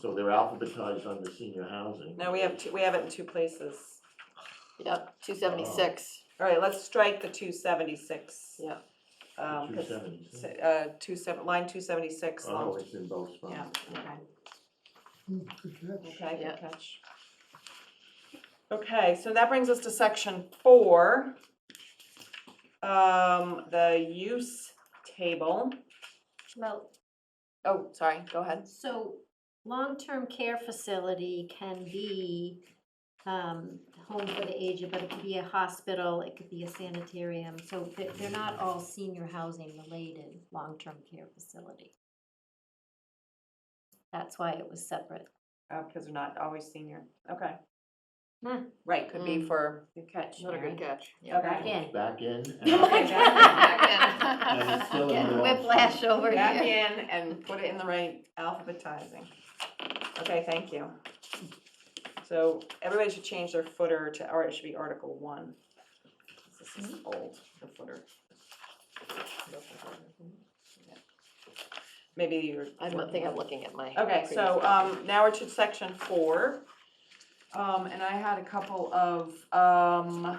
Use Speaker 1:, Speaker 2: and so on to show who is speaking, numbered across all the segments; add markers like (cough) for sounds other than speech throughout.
Speaker 1: So they're alphabetized under senior housing.
Speaker 2: No, we have two, we have it in two places.
Speaker 3: Yep, two seventy-six.
Speaker 2: All right, let's strike the two seventy-six.
Speaker 3: Yeah.
Speaker 2: Um, 'cause,
Speaker 1: 276.
Speaker 2: uh, two seven, line two seventy-six,
Speaker 1: Oh, it's in both
Speaker 2: yeah,
Speaker 1: spots.
Speaker 2: okay.
Speaker 4: Good catch.
Speaker 2: Okay,
Speaker 3: Yeah.
Speaker 2: good catch. Okay, so that brings us to section four. Um, the use table.
Speaker 5: Well,
Speaker 2: Oh, sorry, go ahead.
Speaker 5: so long-term care facility can be um, home for the aged, but it could be a hospital, it could be a sanitarium. So they- they're not all senior housing related, long-term care facility. That's why it was separate.
Speaker 2: Uh, because they're not always senior, okay.
Speaker 5: Hmm.
Speaker 2: Right, could be
Speaker 3: Mm.
Speaker 2: for,
Speaker 5: Good catch,
Speaker 3: Not a good catch.
Speaker 6: (laughs)
Speaker 2: okay.
Speaker 5: Back in.
Speaker 1: Back
Speaker 5: (laughs)
Speaker 1: in.
Speaker 5: Oh my
Speaker 1: out.
Speaker 5: God.
Speaker 1: And it's still in
Speaker 5: Getting
Speaker 1: the wrong
Speaker 5: whiplash over
Speaker 2: Back
Speaker 5: here.
Speaker 2: in and put it in the right alphabetizing. Okay, thank you. So everybody should change their footer to, or it should be Article One. This is old, the footer. Maybe you're.
Speaker 3: (laughs) I don't think I'm looking at my.
Speaker 2: Okay,
Speaker 3: previous
Speaker 2: so,
Speaker 3: document.
Speaker 2: um, now we're to section four. Um, and I had a couple of, um.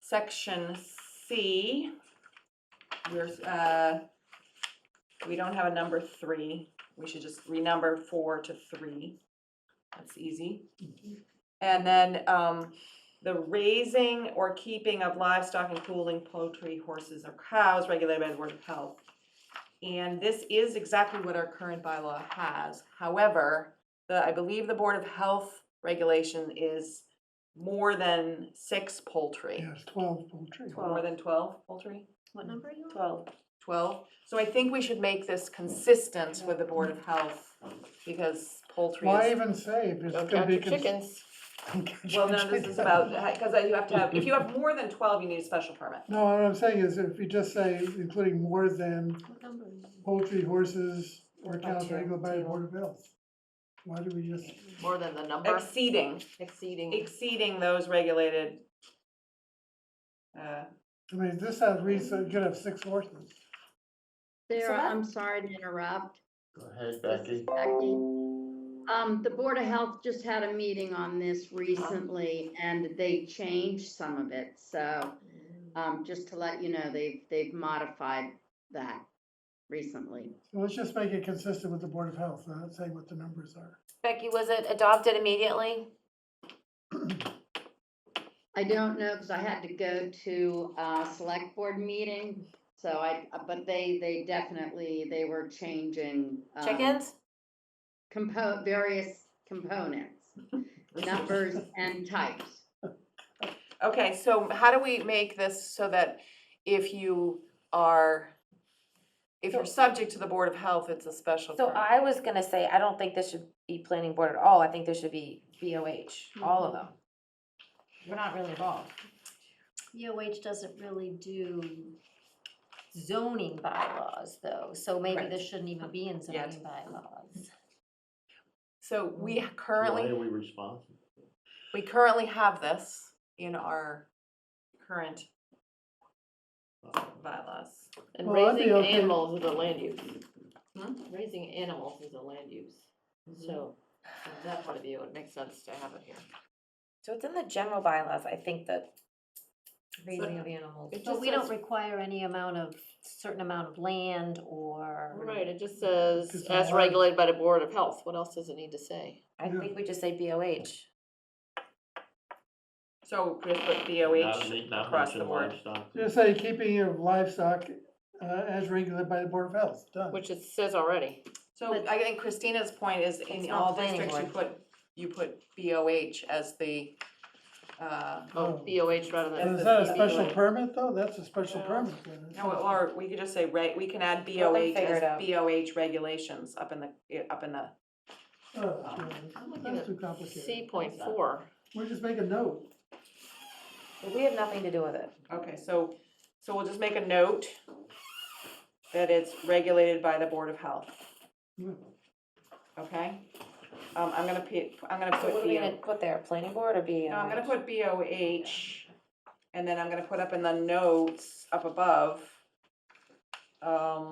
Speaker 2: Section C, we're, uh, we don't have a number three, we should just renumber four to three. That's easy. And then, um, the raising or keeping of livestock including poultry, horses, or cows regulated by the Board of Health. And this is exactly what our current bylaw has. However, the, I believe the Board of Health regulation is more than six poultry.
Speaker 4: Yes, twelve poultry.
Speaker 2: More than twelve poultry?
Speaker 5: What number are you on?
Speaker 2: Twelve. Twelve? So I think we should make this consistent with the Board of Health because poultry
Speaker 4: Why
Speaker 2: is.
Speaker 4: even say if
Speaker 3: Don't
Speaker 4: it's gonna
Speaker 3: count
Speaker 4: be.
Speaker 3: your
Speaker 4: cons-
Speaker 3: chickens.
Speaker 4: don't count
Speaker 2: Well,
Speaker 4: your
Speaker 2: no, this is
Speaker 4: chickens. (laughs)
Speaker 2: about,
Speaker 6: (laughs)
Speaker 2: because you have to have, if you have more than twelve, you need a special permit.
Speaker 4: No, what I'm saying is if you just say including more than
Speaker 5: What number are you on?
Speaker 4: poultry, horses, or
Speaker 2: About
Speaker 4: cows
Speaker 2: two,
Speaker 4: regulated by the
Speaker 2: two.
Speaker 4: Board of Health. Why do we just,
Speaker 3: More than the number
Speaker 2: Exceeding.
Speaker 3: exceeding.
Speaker 2: exceeding those regulated. uh,
Speaker 4: I mean, this has reason, you could have six horses.
Speaker 7: Sarah,
Speaker 5: that-
Speaker 7: I'm sorry to interrupt.
Speaker 1: Go ahead,
Speaker 7: This is
Speaker 1: Becky.
Speaker 7: Becky. Um, the Board of Health just had a meeting on this recently and they changed some of it, so, um, just to let you know, they've, they've modified that recently.
Speaker 4: So let's just make it consistent with the Board of Health, not saying what the numbers are.
Speaker 3: Becky, was it adopted immediately?
Speaker 7: I don't know, because I had to go to a select board meeting, so I, but they, they definitely, they were changing. um,
Speaker 3: Chickens?
Speaker 7: Compo, various components, numbers and types.
Speaker 2: Okay, so how do we make this so that if you are, if you're subject to the Board of Health, it's a special
Speaker 6: So
Speaker 2: permit?
Speaker 6: I was gonna say, I don't think this should be planning board at all, I think this should be BOH, all of them. We're not really involved.
Speaker 5: EOH E doesn't really do zoning bylaws though, so maybe
Speaker 2: Right.
Speaker 5: this shouldn't even be in
Speaker 2: Yeah.
Speaker 5: zoning bylaws.
Speaker 2: So we
Speaker 1: Why
Speaker 2: currently,
Speaker 1: are we responsible?
Speaker 2: we currently have this in our current bylaws.
Speaker 3: And
Speaker 4: Well, I'd be
Speaker 3: raising
Speaker 4: okay.
Speaker 3: animals is a land use.
Speaker 2: Hmm?
Speaker 3: Raising animals is a land use.
Speaker 6: Mm-hmm.
Speaker 3: So from that point of view, it makes sense to have it here.
Speaker 6: So it's in the general bylaws, I think that raising of animals.
Speaker 3: It
Speaker 5: But
Speaker 3: just
Speaker 5: we don't
Speaker 3: says-
Speaker 5: require any amount of, certain amount of land or.
Speaker 3: Right, it just says
Speaker 4: Just
Speaker 3: as
Speaker 4: one.
Speaker 3: regulated by the Board of Health. What else does it need to say?
Speaker 6: I think we just say BOH.
Speaker 2: So we just put
Speaker 1: Not
Speaker 2: BOH
Speaker 1: me- not
Speaker 2: across the
Speaker 1: mention
Speaker 2: board. Hmm.
Speaker 1: livestock.
Speaker 4: Just say keeping of livestock uh, as regulated by the Board of Health, done.
Speaker 3: Which it says already.
Speaker 2: So I think Christina's point is in
Speaker 6: It's not
Speaker 2: all
Speaker 6: planning
Speaker 2: districts, you put, you put BOH as the, uh,
Speaker 3: Oh,
Speaker 4: Oh.
Speaker 3: BOH rather than.
Speaker 4: And is that a
Speaker 3: BOH.
Speaker 4: special permit though? That's a special
Speaker 3: Yeah.
Speaker 4: permit. then, isn't
Speaker 2: No,
Speaker 4: it?
Speaker 2: or we could just say, right, we can add
Speaker 6: Let them
Speaker 2: BOH
Speaker 6: figure
Speaker 2: as
Speaker 6: it out.
Speaker 2: BOH regulations up in the, eh, up in the,
Speaker 4: Oh, yeah,
Speaker 3: I'm looking
Speaker 4: That's
Speaker 3: at
Speaker 4: too complicated.
Speaker 3: C point four.
Speaker 4: We'll just make a note.
Speaker 6: But We have nothing to do with it.
Speaker 2: okay, so, so we'll just make a note that it's regulated by the Board of Health,
Speaker 6: Hmm.
Speaker 4: Yeah.
Speaker 2: okay? Um, I'm gonna p am gonna
Speaker 6: So
Speaker 2: put
Speaker 6: what are we
Speaker 2: BO,
Speaker 6: gonna put there, planning board or BOH?
Speaker 2: no, I'm gonna put BOH, and then I'm gonna put up in the notes up above, um,